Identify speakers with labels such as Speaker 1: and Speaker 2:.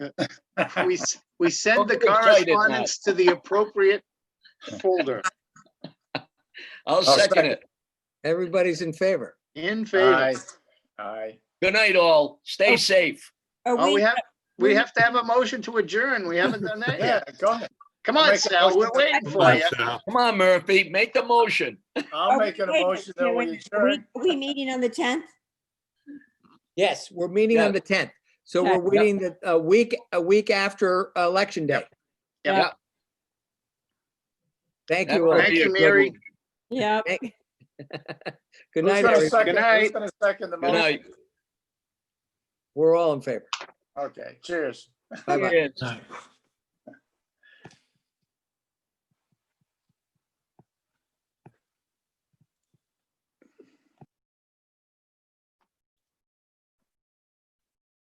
Speaker 1: We, s- we send the
Speaker 2: Don't get excited now.
Speaker 1: correspondence to the appropriate folder.
Speaker 2: I'll second it.
Speaker 3: Everybody's in favor.
Speaker 1: In
Speaker 2: Aye.
Speaker 1: favor.
Speaker 2: Aye. Good night, all. Stay safe.
Speaker 4: Are
Speaker 1: Oh, we
Speaker 4: we,
Speaker 1: have, we have to have a motion to adjourn. We haven't done that
Speaker 2: Yeah,
Speaker 1: yet.
Speaker 2: go ahead.
Speaker 1: Come
Speaker 2: I'll
Speaker 1: on,
Speaker 2: make a
Speaker 1: Sal, we're
Speaker 2: motion to-
Speaker 1: waiting
Speaker 5: Come
Speaker 1: for
Speaker 5: on,
Speaker 1: you.
Speaker 5: Sal.
Speaker 2: Come on, Murphy, make the motion.
Speaker 4: are
Speaker 2: I'll
Speaker 4: we-
Speaker 2: make an
Speaker 4: wait a
Speaker 2: emotion that
Speaker 4: minute,
Speaker 2: we
Speaker 4: wait a minute. Are we-
Speaker 2: adjourn.
Speaker 4: are we meeting on the tenth?
Speaker 3: Yes, we're meeting on
Speaker 2: Yeah.
Speaker 3: the tenth. So we're waiting the, a week, a week after Election Day.
Speaker 1: Yep.
Speaker 4: Yep.
Speaker 3: Thank
Speaker 2: That
Speaker 3: you all.
Speaker 2: would
Speaker 1: Thank
Speaker 2: be a
Speaker 1: you,
Speaker 2: good
Speaker 1: Mary.
Speaker 2: one.
Speaker 4: Yeah.
Speaker 3: Thank- Good
Speaker 2: Who's
Speaker 3: night,
Speaker 2: gonna
Speaker 3: everybody.
Speaker 2: second, who's
Speaker 1: night.
Speaker 2: gonna second the Good motion? night.
Speaker 3: We're all in favor.
Speaker 2: Okay, cheers.
Speaker 3: Bye-bye.
Speaker 2: Cheers.
Speaker 5: Aye.